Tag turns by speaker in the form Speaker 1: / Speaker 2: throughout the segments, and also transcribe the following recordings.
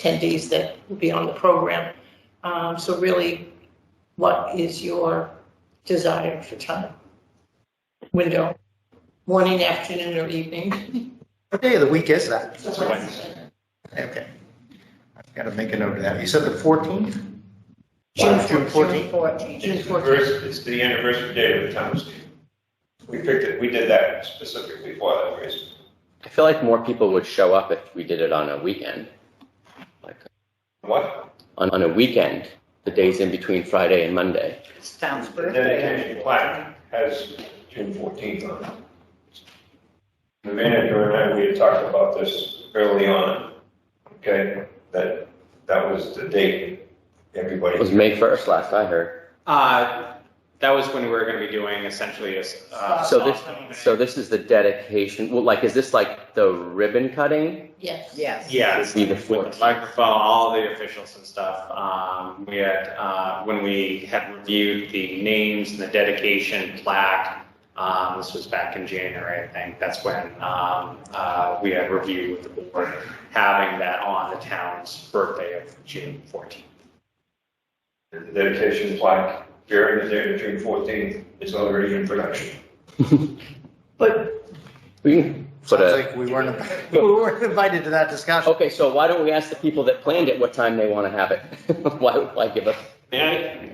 Speaker 1: attendees that will be on the program. Um, So really, what is your desire for time? Window, morning, afternoon, or evening?
Speaker 2: What day of the week is that?
Speaker 1: Wednesday.
Speaker 2: Okay. I've got to make a note of that. You said the 14th?
Speaker 1: June
Speaker 2: June
Speaker 1: 14th.
Speaker 2: 14th?
Speaker 1: June
Speaker 3: It's the
Speaker 1: 14th.
Speaker 3: anniversary- It's the anniversary day of the town of Steve. We picked it, we did that specifically for that reason.
Speaker 4: I feel like more people would show up if we did it on a weekend. Like
Speaker 3: What?
Speaker 4: on, on a weekend, the days in between Friday and Monday.
Speaker 5: Sounds
Speaker 3: The dedication plaque has June fourteenth on it. The manager and I, we had talked about this early on, okay, that, that was the date everybody.
Speaker 4: It was May 1st last I heard.
Speaker 6: Uh, that was when we were going to be doing essentially a. s- Uh,
Speaker 4: So this,
Speaker 6: soft opening.
Speaker 4: so this is the dedication. Well, like, is this like the ribbon cutting?
Speaker 1: Yes.
Speaker 5: Yes.
Speaker 6: Yes,
Speaker 4: Be the
Speaker 6: with the
Speaker 4: 14th.
Speaker 6: microphone, all the officials and stuff. Um, we had, uh, when we had reviewed the names and the dedication plaque, um, this was back in January, I think, that's when, um, uh, we had reviewed with the board, having that on the town's birthday of June fourteenth.
Speaker 3: The dedication plaque during the day of June fourteenth is already in production.
Speaker 2: But.
Speaker 4: We can put
Speaker 2: Sounds
Speaker 4: a,
Speaker 2: like we weren't, we weren't invited to that discussion.
Speaker 4: okay, so why don't we ask the people that planned it what time they want to have it? Why would I give up?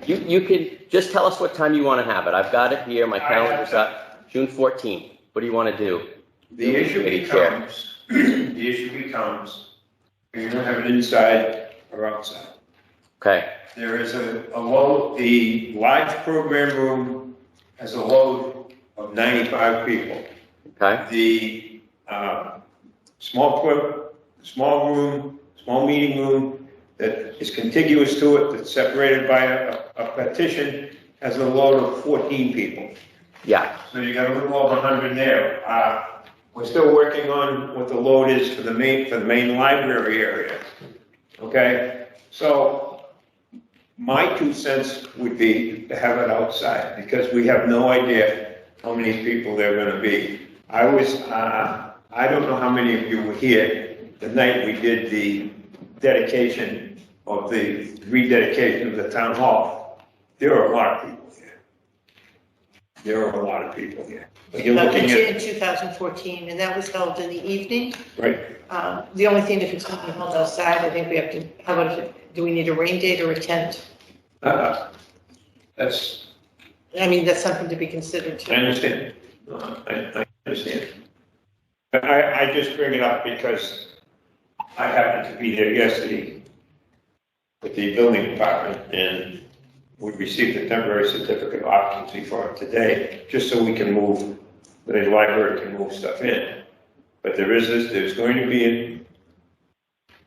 Speaker 4: You, you could, just tell us what time you want to have it. I've got it here, my
Speaker 3: I have
Speaker 4: calendar's up, June 14th. What do you want to do?
Speaker 3: The issue
Speaker 4: Committee chair.
Speaker 3: becomes, the issue becomes, you don't have it inside or outside.
Speaker 4: Okay,
Speaker 3: There is a, a load, the large program room has a load of 95 people.
Speaker 4: okay,
Speaker 3: The, uh, small, pro- small room, small meeting room that is contiguous to it, that's separated by a, a partition, has a load of 14 people.
Speaker 4: yeah,
Speaker 3: So you got a little over hundred there. Uh, we're still working on what the load is for the main, for the main library area. Okay, so my two cents would be to have it outside, because we have no idea how many people there are gonna be. I was, uh, I don't know how many of you were here the night we did the dedication of the rededication of the town hall. There were a lot of people here. There were a lot of people here. But you're
Speaker 1: That was
Speaker 3: looking at,
Speaker 1: in 2014, and that was held in the evening.
Speaker 3: right,
Speaker 1: Um, The only thing, if it's going to be held outside, I think we have to, how about, do we need a rain date or a tent?
Speaker 3: Uh, That's,
Speaker 1: I mean, that's something to be considered
Speaker 3: I
Speaker 1: too.
Speaker 3: understand. Uh, I, I understand. But I, I just bring it up because I happened to be there yesterday with the building department and we received a temporary certificate of occupancy for it today, just so we can move, the library can move stuff in. But there is this, there's going to be, an-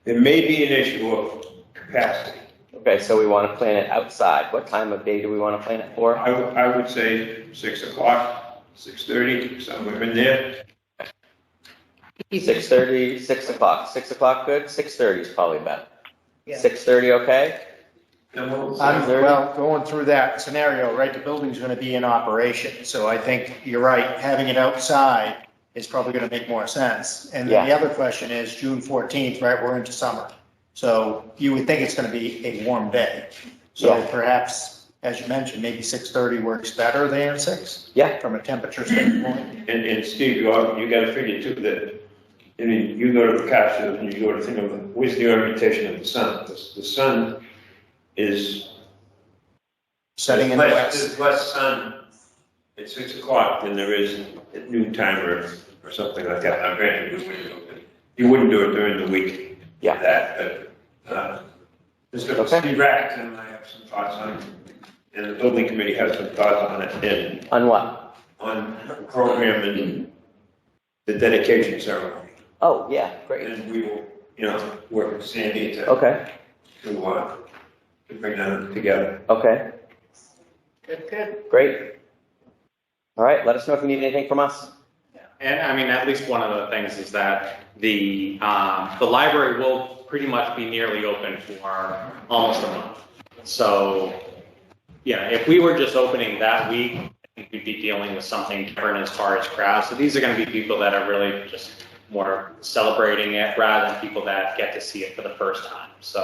Speaker 3: there may be an issue of capacity.
Speaker 4: okay, so we want to plan it outside. What time of day do we want to plan it for?
Speaker 3: I, would- I would say six o'clock, six thirty, somewhere in there.
Speaker 4: Six thirty, six o'clock. Six o'clock good? Six thirty is probably better.
Speaker 5: Yeah.
Speaker 4: Six thirty, okay?
Speaker 3: And
Speaker 4: Oh,
Speaker 3: we'll-
Speaker 2: I'm, well, going through that scenario, right, the building's going to be in operation, so I think you're right, having it outside is probably going to make more sense. And then the other question is June 14th, right, we're into summer, so you would think it's going to be a warm day. So
Speaker 4: Yeah.
Speaker 2: perhaps, as you mentioned, maybe 6:30 works better than 6
Speaker 4: Yeah.
Speaker 2: from a temperature standpoint.
Speaker 3: And, and Steve, you all, you gotta figure too that, I mean, you go to the capsule and you go to think of, where's the orientation of the sun? The, the sun is.
Speaker 2: Setting in the
Speaker 3: there's less-
Speaker 2: west,
Speaker 3: There's less sun at six o'clock than there is at noon time or, or something like that. Now granted, we wouldn't do it, you wouldn't do it during the week.
Speaker 4: Yeah.
Speaker 3: That, but, uh, Mr.
Speaker 4: Okay.
Speaker 3: Steve Rackett and I have some thoughts on, it, and the building committee has some thoughts on it, and
Speaker 4: On what?
Speaker 3: on programming the dedication ceremony.
Speaker 4: Oh, yeah, great.
Speaker 3: And we will, you know, work with Sandy to,
Speaker 4: Okay,
Speaker 3: to, uh, to bring them together.
Speaker 4: okay,
Speaker 5: Good, good.
Speaker 4: great. All right, let us know if you need anything from us.
Speaker 6: And I mean, at least one of the things is that the, um, the library will pretty much be nearly open for almost a month. So, yeah, if we were just opening that week, I think we'd be dealing with something different as far as crowds. So these are gonna be people that are really just more celebrating it rather than people that get to see it for the first time. So